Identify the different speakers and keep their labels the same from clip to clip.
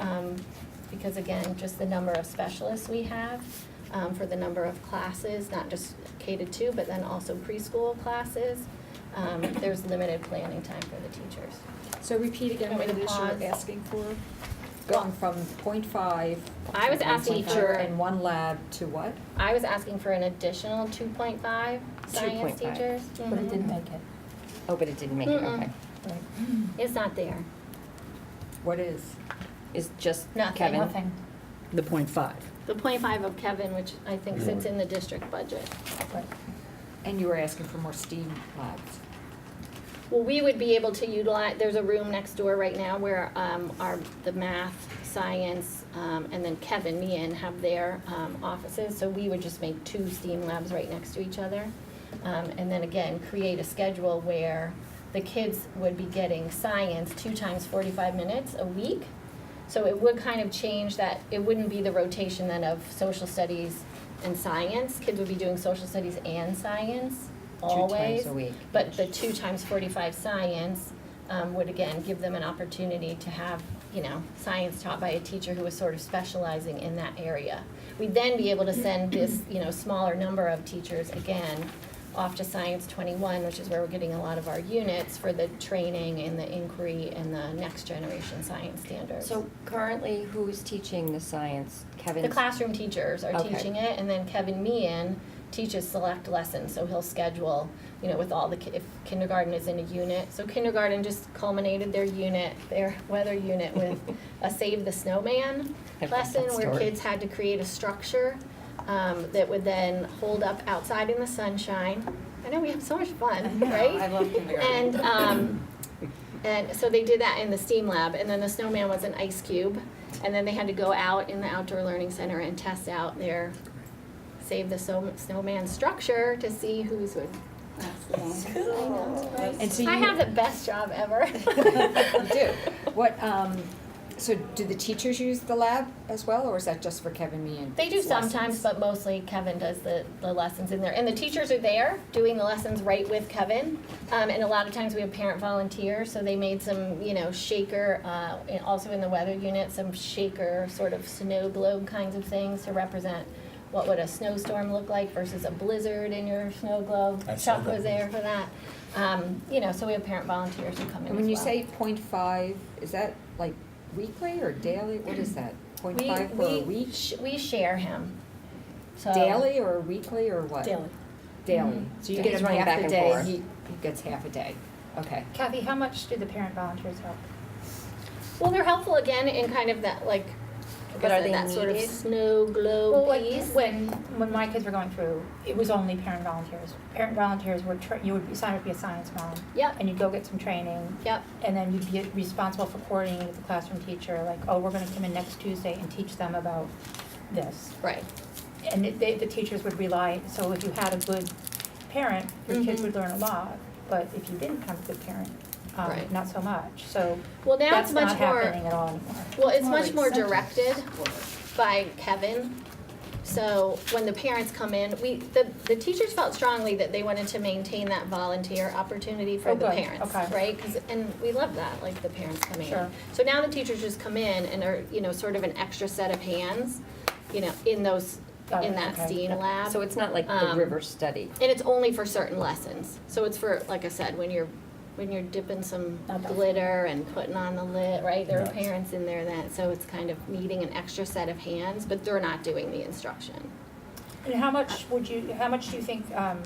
Speaker 1: Um, because again, just the number of specialists we have um, for the number of classes, not just K to two, but then also preschool classes, um, there's limited planning time for the teachers.
Speaker 2: So repeat again
Speaker 1: Can we
Speaker 2: what it is
Speaker 1: pause?
Speaker 2: you're asking for? Gone from point five.
Speaker 1: I was asking
Speaker 2: Teacher
Speaker 1: for-
Speaker 2: and one lab to what?
Speaker 1: I was asking for an additional two point five science
Speaker 3: 2.5.
Speaker 1: teachers.
Speaker 4: But it
Speaker 1: Mhm.
Speaker 4: didn't make it.
Speaker 3: Oh, but it didn't make it,
Speaker 1: Mm-mm.
Speaker 3: okay.
Speaker 1: It's not there,
Speaker 2: What is?
Speaker 3: Is just
Speaker 1: Nothing.
Speaker 3: Kevin?
Speaker 4: Nothing,
Speaker 5: The point five.
Speaker 1: the point five of Kevin, which I think sits in the district budget.
Speaker 4: right.
Speaker 2: And you were asking for more STEAM labs.
Speaker 1: Well, we would be able to utilize, there's a room next door right now where um, our, the math, science, um, and then Kevin, me and have their um, offices. So we would just make two STEAM labs right next to each other. Um, And then again, create a schedule where the kids would be getting science two times 45 minutes a week. So it would kind of change that, it wouldn't be the rotation then of social studies and science. Kids would be doing social studies and science always.
Speaker 3: Two times a week.
Speaker 1: But the two times forty-five science um, would again give them an opportunity to have, you know, science taught by a teacher who was sort of specializing in that area. We'd then be able to send this, you know, smaller number of teachers again off to Science twenty-one, which is where we're getting a lot of our units for the training and the inquiry and the next generation science standards.
Speaker 3: So currently, who's teaching the science? Kevin?
Speaker 1: The classroom teachers are
Speaker 3: Okay.
Speaker 1: teaching it, and then Kevin Meehan teaches select lessons, so he'll schedule, you know, with all the, ki- if kindergarten is in a unit. So kindergarten just culminated their unit, their weather unit with a Save the Snowman
Speaker 3: I love
Speaker 1: lesson
Speaker 3: that
Speaker 1: where
Speaker 3: story.
Speaker 1: kids had to create a structure um, that would then hold up outside in the sunshine. I know we have so much fun, right?
Speaker 4: I love kindergarten.
Speaker 1: And, um, and so they did that in the STEAM lab, and then the snowman was an ice cube. And then they had to go out in the outdoor learning center and test out their save the so- snowman structure to see who's would.
Speaker 2: And so you.
Speaker 1: I have the best job ever.
Speaker 2: You do. What, um, so do the teachers use the lab as well, or is that just for Kevin, me and?
Speaker 1: They do
Speaker 2: his lessons?
Speaker 1: sometimes, but mostly Kevin does the, the lessons in there. And the teachers are there doing the lessons right with Kevin. Um, and a lot of times we have parent volunteers, so they made some, you know, shaker, uh, and also in the weather unit, some shaker sort of snow globe kinds of things to represent what would a snowstorm look like versus a blizzard in your snow globe.
Speaker 6: I saw
Speaker 1: Chuck was
Speaker 6: that.
Speaker 1: there for that. Um, you know, so we have parent volunteers who come in
Speaker 2: And when
Speaker 1: as
Speaker 2: you
Speaker 1: well.
Speaker 2: say point five, is that like weekly or daily? What is that? Point
Speaker 1: We-
Speaker 2: five for a
Speaker 1: we
Speaker 2: week?
Speaker 1: sh- We share him, so.
Speaker 2: Daily or weekly or what?
Speaker 4: Daily.
Speaker 2: Daily. So you
Speaker 3: Yeah,
Speaker 2: get
Speaker 3: he's
Speaker 2: him
Speaker 3: Mm-hmm. running back
Speaker 2: half a
Speaker 3: and
Speaker 2: day,
Speaker 3: forth.
Speaker 2: he, he gets half a day. Okay.
Speaker 4: Kathy, how much do the parent volunteers help?
Speaker 1: Well, they're helpful again in kind of that like, I
Speaker 3: But
Speaker 1: guess
Speaker 3: are
Speaker 1: in
Speaker 3: they
Speaker 1: that sort of
Speaker 3: needed?
Speaker 1: snow
Speaker 4: Well,
Speaker 1: globe
Speaker 4: like,
Speaker 1: piece.
Speaker 4: when, when my kids were going through, it was only parent volunteers. Parent volunteers were, tra- you would be- sign up to be a science mom,
Speaker 1: Yep,
Speaker 4: and you'd go get some training,
Speaker 1: yep,
Speaker 4: and then you'd be responsible for coordinating with the classroom teacher, like, oh, we're gonna come in next Tuesday and teach them about this.
Speaker 1: right.
Speaker 4: And it- they, the teachers would rely, so if you had a good parent, your kids
Speaker 1: Mhm.
Speaker 4: would learn a lot, but if you didn't have a good parent, um,
Speaker 1: Right.
Speaker 4: not so much, so
Speaker 1: Well, now
Speaker 4: that's
Speaker 1: it's much
Speaker 4: not
Speaker 1: more,
Speaker 4: happening at all anymore.
Speaker 1: well, it's much more directed by Kevin. So when the parents come in, we, the, the teachers felt strongly that they wanted to maintain that volunteer opportunity for
Speaker 4: Oh,
Speaker 1: the
Speaker 4: good.
Speaker 1: parents,
Speaker 4: Okay.
Speaker 1: right? 'Cause- and we love that, like the parents coming in.
Speaker 4: Sure.
Speaker 1: So now the teachers just come in and are, you know, sort of an extra set of hands, you know, in those,
Speaker 4: Oh,
Speaker 1: in that
Speaker 4: okay.
Speaker 1: STEAM lab.
Speaker 3: So it's not like the
Speaker 1: Um,
Speaker 3: river study?
Speaker 1: And it's only for certain lessons. So it's for, like I said, when you're, when you're dipping some glitter and putting on the lid, right? There are
Speaker 6: Nice.
Speaker 1: parents in there that, so it's kind of needing an extra set of hands, but they're not doing the instruction.
Speaker 4: And how much would you, how much do you think um,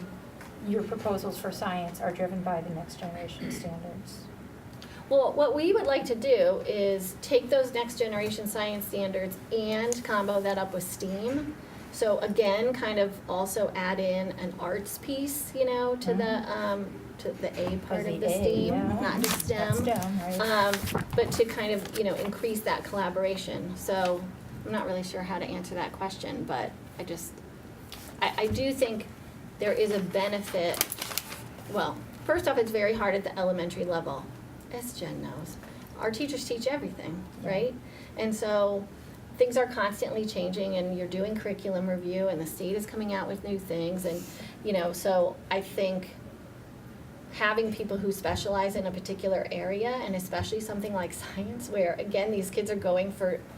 Speaker 4: your proposals for science are driven by the next generation standards?
Speaker 1: Well, what we would like to do is take those next generation science standards and combo that up with STEAM. So again, kind of also add in an arts piece, you know, to the, um, to the A part of
Speaker 4: Mm-hmm. the
Speaker 1: the
Speaker 4: A, yeah.
Speaker 1: STEAM, not just STEM.
Speaker 4: That's STEM, right?
Speaker 1: Um, but to kind of, you know, increase that collaboration. So I'm not really sure how to answer that question, but I just, I, I do think there is a benefit. Well, first off, it's very hard at the elementary level, as Jen knows. Our teachers teach everything, right? And so things are constantly changing and you're doing curriculum review and the state is coming out with new things and, you know, so I think having people who specialize in a particular area and especially something like science where again these kids are going for